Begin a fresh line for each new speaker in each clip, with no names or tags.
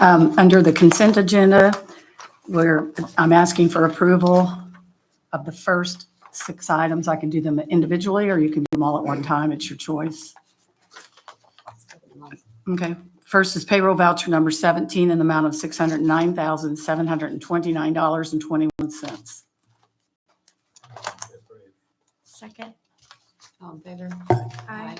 Um, Under the consent agenda, where I'm asking for approval of the first six items. I can do them individually, or you can do them all at one time. It's your choice. Okay. First is payroll voucher number 17 in the amount of $609,729.21.
Second. All in favor?
Aye.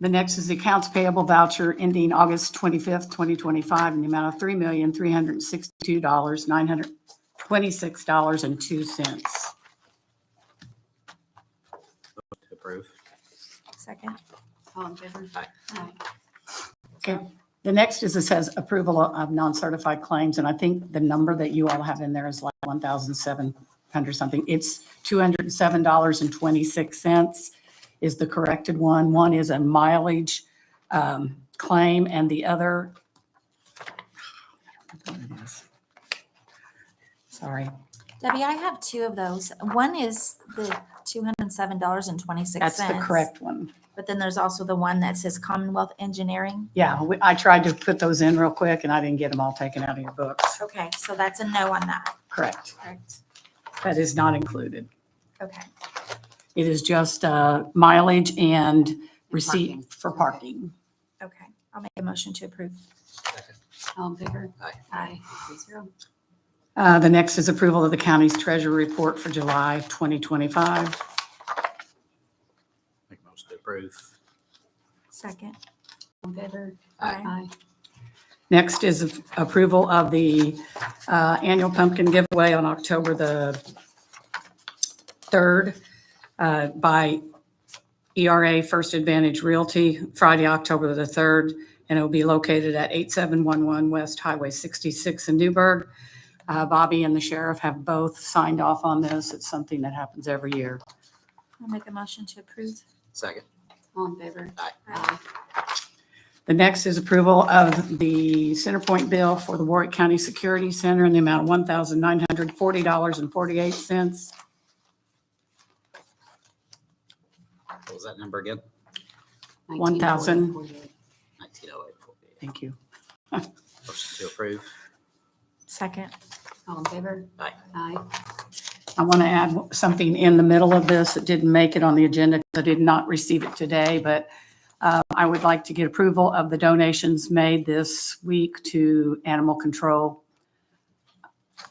The next is the accounts payable voucher ending August 25th, 2025, in the amount of $3,362,926.02.
To approve.
Second.
All in favor? Aye.
The next is, it says approval of non-certified claims, and I think the number that you all have in there is like 1,700 something. It's $207.26 is the corrected one. One is a mileage um, claim, and the other, sorry,
Debbie, I have two of those. One is the two hundred and seven dollars and twenty-six cents.
that's the correct one.
But then there's also the one that says Commonwealth Engineering.
Yeah, we- I tried to put those in real quick, and I didn't get them all taken out of your books.
Okay, so that's a no on that.
Correct.
Correct.
That is not included.
Okay,
It is just uh, mileage and
parking.
receipt for parking.
okay. I'll make a motion to approve.
All in favor?
Aye.
Aye. Three zero.
Uh, The next is approval of the county's treasurer report for July 2025.
Make a motion to approve.
Second.
All in favor?
Aye.
Next is approval of the uh, annual pumpkin giveaway on October the 3rd uh, by ERA First Advantage Realty, Friday, October the 3rd, and it will be located at 8711 West Highway 66 in Newburgh. Uh, Bobby and the sheriff have both signed off on this. It's something that happens every year.
I'll make a motion to approve.
Second.
All in favor?
Aye.
Aye.
The next is approval of the center point bill for the Warwick County Security Center in the amount of one thousand nine hundred forty dollars and forty-eight cents.
What was that number again?
1,000.
1948.
Nineteen oh eight forty-eight.
Thank you.
Motion to approve.
Second.
All in favor?
Aye.
Aye.
I want to add something in the middle of this that didn't make it on the agenda. 'cause I did not receive it today, but uh, I would like to get approval of the donations made this week to animal control.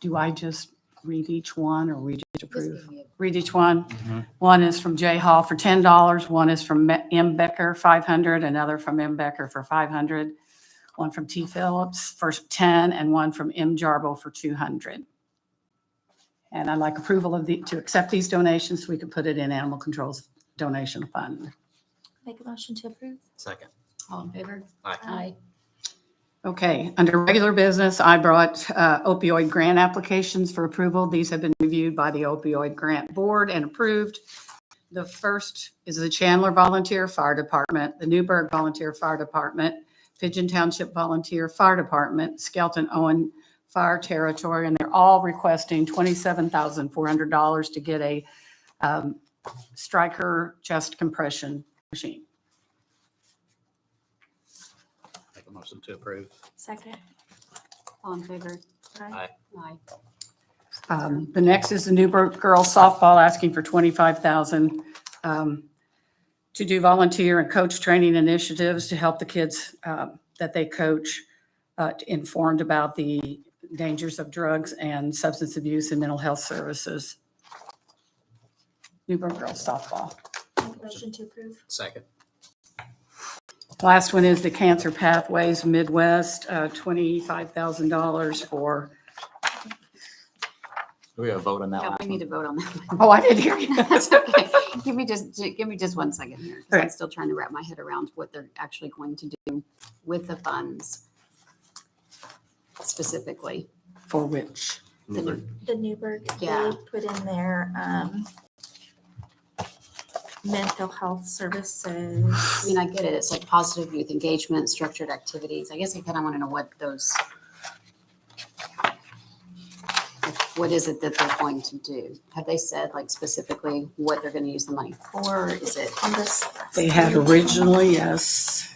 Do I just read each one or we just approve?
Just give me a-
read each one. One is from Jay Hall for ten dollars, one is from Me- M. Becker, five hundred, another from M. Becker for five hundred, one from T. Phillips for ten, and one from M. Jarbo for two hundred. And I'd like approval of the, to accept these donations, so we can put it in Animal Control's donation fund.
Make a motion to approve.
Second.
All in favor?
Aye.
Aye.
Okay, under regular business, I brought uh, opioid grant applications for approval. These have been reviewed by the opioid grant board and approved. The first is the Chandler Volunteer Fire Department, the Newburgh Volunteer Fire Department, Pigeon Township Volunteer Fire Department, Skelton Owen Fire Territory, and they're all requesting $27,400 to get a um, striker chest compression machine.
Make a motion to approve.
Second.
All in favor?
Aye.
Aye.
Um, The next is the Newburgh Girls Softball asking for $25,000 um, to do volunteer and coach training initiatives to help the kids uh, that they coach uh, informed about the dangers of drugs and substance abuse and mental health services. Newburgh Girls Softball.
Make a motion to approve.
Second.
Last one is the Cancer Pathways Midwest, uh, $25,000 for,
Do we have a vote on
Yeah, we need to vote on that. one.
oh, I didn't hear you.
That's okay. Give me just, ju- give me just one second here. 'cause I'm
Okay.
still trying to wrap my head around what they're actually going to do with the funds specifically.
For which?
The new-
The Newburgh,
Yeah.
they put in their, um, mental health services.
I mean, I get it. It's like positive youth engagement, structured activities. I guess I kind of want to know what those, what is it that they're going to do? Have they said like specifically what they're going to use the money for? Or Is it,
on this.
They had originally, yes.